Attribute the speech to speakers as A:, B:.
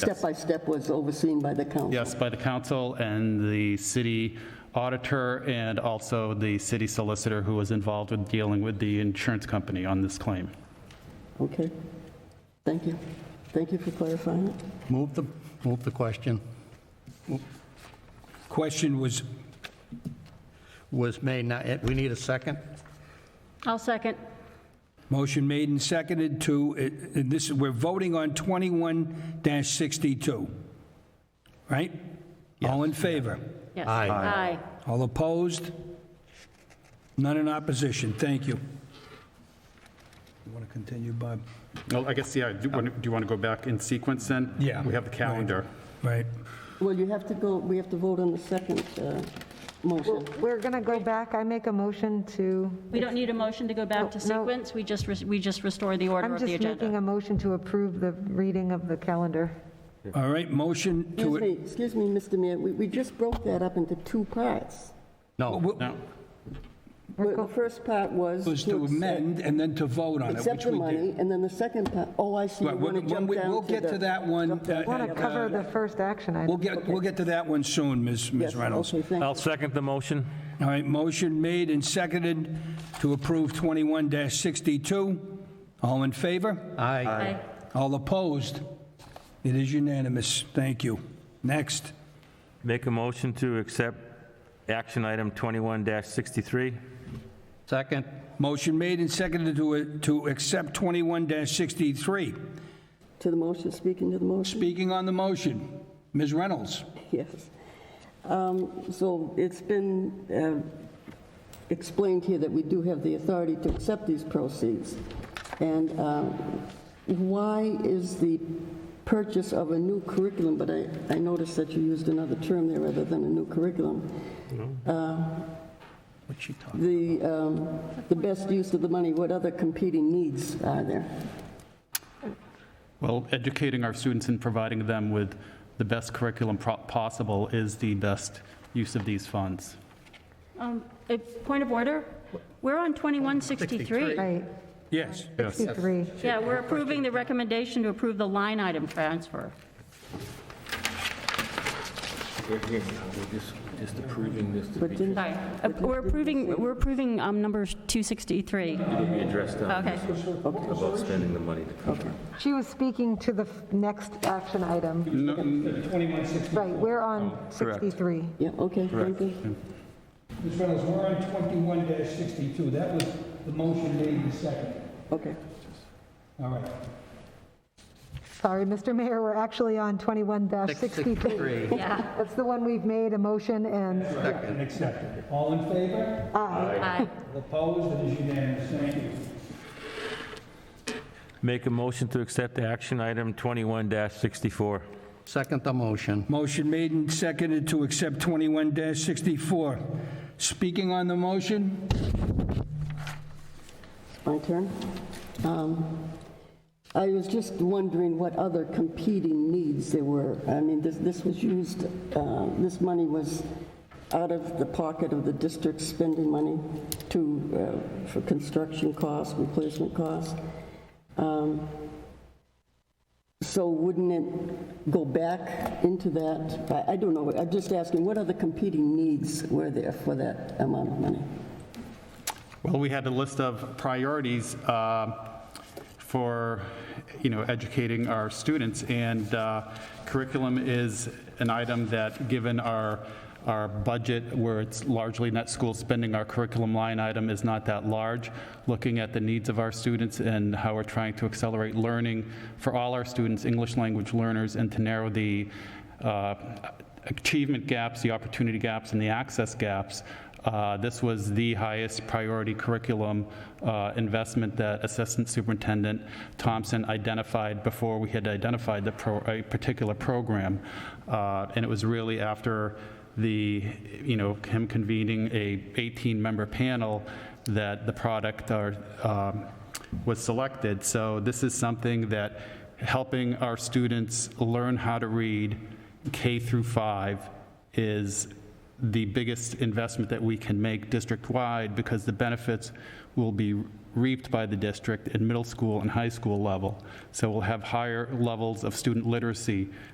A: step by step was overseen by the council.
B: Yes, by the council and the city auditor and also the city solicitor who was involved with dealing with the insurance company on this claim.
A: Okay. Thank you. Thank you for clarifying it.
C: Move the, move the question.
D: Question was,
C: Was made, now, eh, we need a second?
E: I'll second.
D: motion made and seconded to, eh, and this, we're voting on 21-62, right? All in favor?
E: Yes.
C: Aye.
E: Aye.
D: All opposed? None in opposition, thank you. You want to continue, Bob?
B: Well, I guess, yeah, do you want- do you want to go back in sequence then?
D: Yeah.
B: We have the calendar.
D: Right.
A: Well, you have to go, we have to vote on the second uh, motion.
F: We're going to go back. I make a motion to,
E: We don't need a motion to go back to
F: No, no.
E: sequence, we just, res- we just restore the order
F: I'm
E: of the
F: just making
E: agenda.
F: a motion to approve the reading of the calendar.
D: All right, motion to...
A: Excuse me, excuse me, Mr. Mayor, we we just broke that up into two parts.
C: No,
B: No,
A: Well, The first part was.
D: Was to
A: accept-
D: amend and then to vote on it,
A: Accept
D: which
A: the
D: we
A: money,
D: did.
A: and then the second part, oh, I see, you
D: Right,
A: want to
D: when-
A: jump
D: when we-
A: down to the...
D: We'll get to that one. uh,
F: Want to
D: uh,
F: cover the first action
D: We'll
F: item.
D: get, we'll get to that one soon, Ms. Ms.
A: Yes,
D: Reynolds.
A: okay, thank you.
G: I'll second the motion.
D: All right, motion made and seconded to approve 21-62. All in favor?
C: aye.
E: Aye.
D: All opposed? It is unanimous. Thank you. Next.
G: Make a motion to accept action item 21-63.
C: Second,
D: Motion made and seconded to, to accept 21-63.
A: To the motion, speaking to the motion?
D: Speaking on the motion, Ms. Reynolds.
A: Yes. Um, So it's been uh, explained here that we do have the authority to accept these proceeds. And um, why is the purchase of a new curriculum, but I I noticed that you used another term there rather than a new curriculum, uh,
C: what's she talking?
A: the um, the best use of the money, what other competing needs are there?
B: well, educating our students and providing them with the best curriculum pro- possible is the best use of these funds.
E: Um, a Point of order, we're on 2163.
F: Right,
D: Yes.
B: Yes.
F: 63.
E: Yeah, we're approving the recommendation to approve the line item transfer.
H: We're here now, we're just, just approving this to
A: But
H: be,
A: didn't-
E: Sorry, Uh, we're approving, we're approving um, number 263.
H: it'll be addressed uh, down
E: Okay.
H: about spending the money to come.
F: She was speaking to the f- next action item. Right, we're
D: Oh,
F: on 63.
A: Yeah, okay, thank you.
D: Ms. Reynolds, we're on 21-62. That was the motion made and seconded.
A: Okay.
D: All right.
F: Sorry, Mr. Mayor, we're actually on 21-63.
E: Yeah.
F: That's the one we've made a motion and,
D: And accepted. All in favor?
E: Aye.
D: Opposed? It is unanimous. Thank you.
G: Make a motion to accept action item 21-64.
C: Second the motion.
D: Motion made and seconded to accept 21-64. Speaking on the motion?
A: My turn. Um, I was just wondering what other competing needs there were. I mean, this, this was used, uh, this money was out of the pocket of the district spending money to, uh, for construction costs, replacement costs. Um, So wouldn't it go back into that? I, I don't know, I'm just asking, what other competing needs were there for that amount of money?
B: Well, we had a list of priorities um, for, you know, educating our students, and uh, curriculum is an item that, given our, our budget, where it's largely net school spending, our curriculum line item is not that large. Looking at the needs of our students and how we're trying to accelerate learning for all our students, English language learners, and to narrow the uh, achievement gaps, the opportunity gaps, and the access gaps, uh, this was the highest priority curriculum uh, investment that Assistant Superintendent Thompson identified before we had identified the pro- a particular program. Uh, And it was really after the, you know, him convening a 18-member panel that the product or, um, was selected. So this is something that helping our students learn how to read, K through 5 is the biggest investment that we can make district-wide because the benefits will be reaped by the district at middle school and high school level. So we'll have higher levels of student literacy